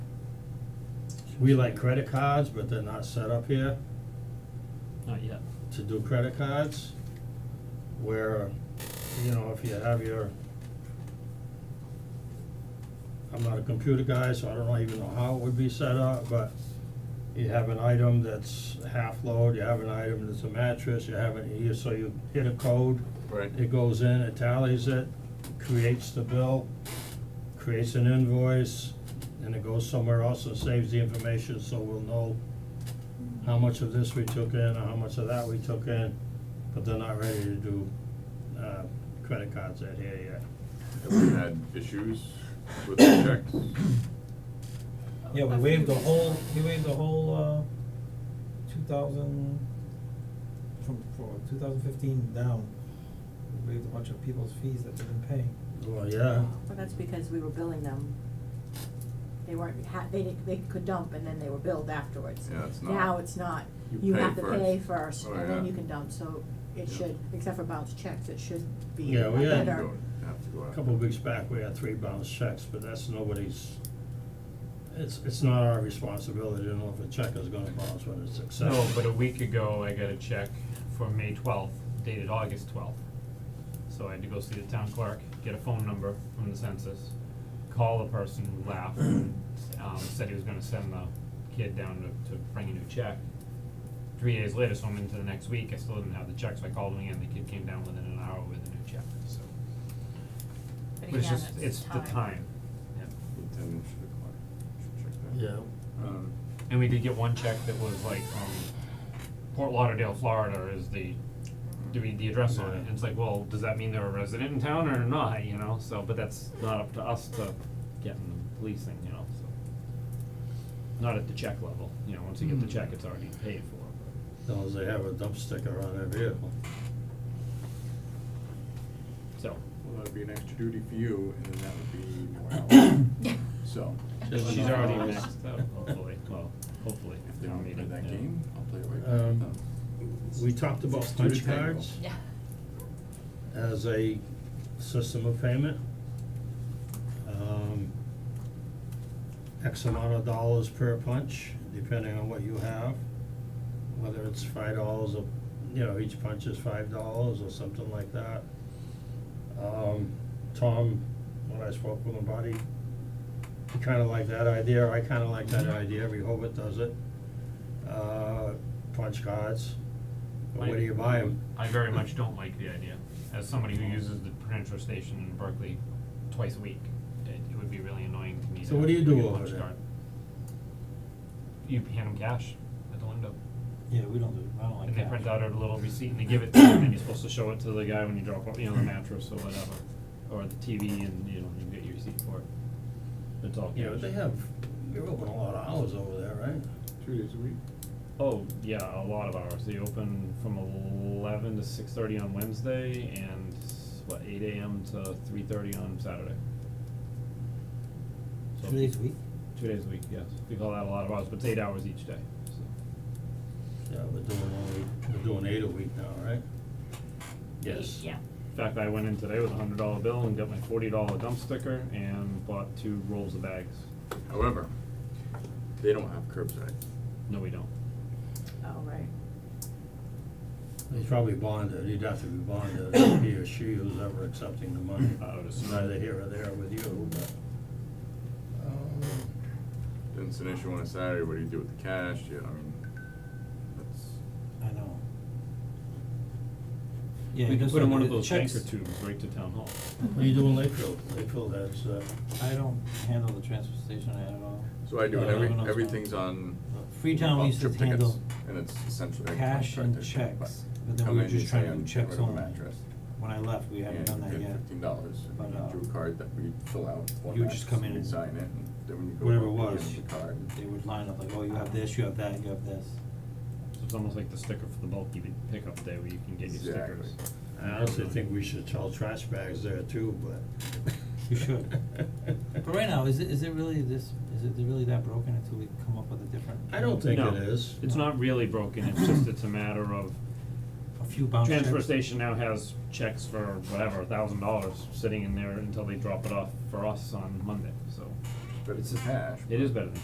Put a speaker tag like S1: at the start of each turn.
S1: we like credit cards, but they're not set up here
S2: Not yet.
S1: to do credit cards. Where, you know, if you have your, I'm not a computer guy, so I don't even know how it would be set up, but you have an item that's half load, you have an item that's a mattress, you have an, you, so you hit a code.
S3: Right.
S1: It goes in, it tallies it, creates the bill, creates an invoice, and it goes somewhere else and saves the information, so we'll know how much of this we took in, or how much of that we took in, but they're not ready to do, uh, credit cards out here yet.
S3: Have we had issues with the checks?
S4: Yeah, we waived the whole, we waived the whole, uh, two thousand, from, for two thousand fifteen down. We waived a bunch of people's fees that they've been paying.
S1: Well, yeah,
S5: Well, that's because we were billing them. They weren't, ha- they, didn't- they could dump and then they were billed afterwards.
S3: Yeah, it's not.
S5: Now it's not.
S3: You
S5: You
S3: pay
S5: have to pay
S3: first.
S5: first
S3: Oh,
S5: and then
S3: yeah.
S5: you can dump, so it
S3: Yeah.
S5: should, except for bounce checks, it should be
S1: Yeah,
S5: a
S1: we had-
S5: better.
S3: Have to go
S1: a
S3: out.
S1: couple of weeks back, we had three bounce checks, but that's nobody's, it's, it's not our responsibility to know if a check is gonna bounce when it's accepted.
S2: No, but a week ago, I got a check for May twelfth, dated August twelfth. So I had to go see the town clerk, get a phone number from the census, call the person who laughed and, um, said he was gonna send the kid down to, to bring a new check. Three days later, so I'm into the next week, I still didn't have the check, so I called him again, the kid came down within an hour with a new check, so. But it's just, it's the time, yeah.
S3: Ten should o'clock. Should check that.
S1: Yeah,
S3: Um,
S2: And we did get one check that was like from Port Lauderdale, Florida is the, do we, the address on it, and it's like, well, does that mean they're a resident in town or not, you know, so, but that's not up to us to get in the policing, you know, so. Not at the check level, you know, once you get the check, it's already paid for, but,
S1: as long as they have a dump sticker on their vehicle.
S2: so,
S3: Well, that'd be an extra duty for you, and then that would be Noel, so.
S2: she's already next, hopefully, well, hopefully,
S3: If they
S2: town
S3: want me to
S2: meeting,
S3: that
S2: yeah.
S3: game, I'll play it right back
S1: Um,
S3: with them.
S1: We talked about
S3: Six two to
S1: punch
S3: tango.
S1: cards
S6: Yeah.
S1: as a system of payment. Um, X amount of dollars per punch, depending on what you have, whether it's five dollars a, you know, each punch is five dollars or something like that. Um, Tom, when I spoke with him about it, he kinda liked that idea, I kinda like that
S2: Mm-hmm.
S1: idea, Rehoboth does it. Uh, punch cards, but where do you buy them?
S2: I very much don't like the idea, as somebody who uses the Prudential Station in Berkeley twice a week, it it would be really annoying to me
S1: So
S2: to
S1: what do you
S2: to
S1: do
S2: get a
S1: over
S2: punch
S1: there?
S2: card. You hand them cash at the window,
S4: Yeah, we don't do, I don't like
S2: and
S4: that.
S2: they print out a little receipt and they give it to you, and then you're supposed to show it to the guy when you drop off, you know, the mattress or whatever, or the TV, and you know, you get your receipt for it. It's all cash.
S1: You know, they have, you're open a lot of hours over there, right?
S3: Two days a week.
S2: Oh, yeah, a lot of hours. They open from eleven to six thirty on Wednesday and what, eight AM to three thirty on Saturday. So-
S4: Two days a week?
S2: Two days a week, yes. We call that a lot of hours, but it's eight hours each day, so.
S1: Yeah, we're doing only, we're doing eight a week now, right? Yes.
S6: Yeah.
S2: In fact, I went in today with a hundred dollar bill and got my forty dollar dump sticker and bought two rolls of bags.
S3: However, they don't have curbside.
S2: No, we don't.
S5: Oh, right.
S1: He's probably bonded, he'd have to be bonded, if he or she who's ever accepting the money.
S2: I would assume.
S1: Neither here or there with you, but. um,
S3: Then it's an issue on a Saturday, what do you do with the cash, you, I mean, that's,
S4: I know. Yeah,
S2: We can
S4: because
S2: put in one
S4: the-
S2: of
S4: the
S2: those
S4: checks-
S2: anchor tubes right to town hall.
S1: What do you do in Lakeville? Lakeville, that's, uh,
S4: I don't handle the transfer station at all.
S3: so I do,
S4: Yeah,
S3: and every,
S4: everyone else
S3: everything's
S4: does.
S3: on.
S4: Freetown
S3: on
S4: used to
S3: trip tickets,
S4: handle
S3: And it's essentially. like
S4: cash
S3: contract
S4: and
S3: issue,
S4: checks, but then
S3: how
S4: we were
S3: many
S4: just
S3: you
S4: trying
S3: say
S4: to do
S3: on-
S4: checks
S3: get rid of a
S4: only.
S3: mattress?
S4: When I left, we haven't
S3: And
S4: done that
S3: you
S4: yet.
S3: get fifteen dollars,
S4: But,
S3: and you
S4: uh,
S3: drew a card that we fill out, format,
S4: you would just come in
S3: you
S4: and-
S3: sign it, and then when you go
S1: Whatever it
S3: up, you
S1: was.
S3: give them the card.
S4: They would line up like, oh, you have this, you have that, you have this.
S2: So it's almost like the sticker for the bulky pickup day where you can get your stickers.
S3: Exactly.
S1: I honestly think we should sell trash bags there too, but.
S4: You should. But right now, is it, is it really this, is it really that broken until we come up with a different?
S1: I don't think
S2: No,
S1: it is.
S2: It's not really broken, it's just it's a matter of
S4: A few bounce checks.
S2: transfer station now has checks for whatever, a thousand dollars sitting in there until they drop it off for us on Monday, so.
S3: But it's
S2: a
S3: cash,
S2: It is
S3: but-
S2: better than